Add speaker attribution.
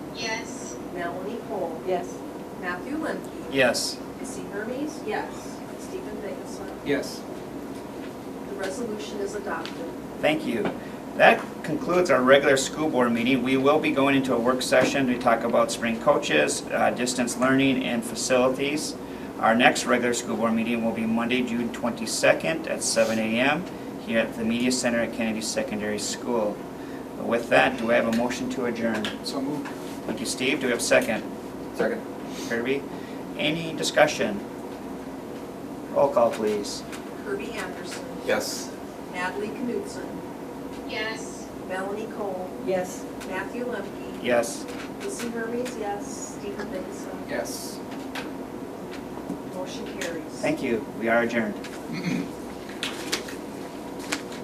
Speaker 1: Cole,
Speaker 2: Yes.
Speaker 1: Matthew Lemke,
Speaker 3: Yes.
Speaker 1: Missy Hermes, yes, Stephen Vigasa.
Speaker 4: Yes.
Speaker 1: The resolution is adopted.
Speaker 3: Thank you. That concludes our regular school board meeting. We will be going into a work session to talk about spring coaches, uh, distance learning, and facilities. Our next regular school board meeting will be Monday, June 22nd at 7 a.m. here at the Media Center at Kennedy Secondary School. With that, do I have a motion to adjourn?
Speaker 4: So moved.
Speaker 3: Thank you, Steve. Do we have a second?
Speaker 4: Second.
Speaker 3: Kirby? Any discussion? Roll call, please.
Speaker 1: Kirby Anderson,
Speaker 4: Yes.
Speaker 1: Natalie Knutson,
Speaker 5: yes.
Speaker 1: Melanie Cole,
Speaker 2: Yes.
Speaker 1: Matthew Lemke,
Speaker 3: Yes.
Speaker 1: Missy Hermes, yes, Stephen Vigasa.
Speaker 4: Yes.
Speaker 1: Motion carries.
Speaker 3: Thank you. We are adjourned.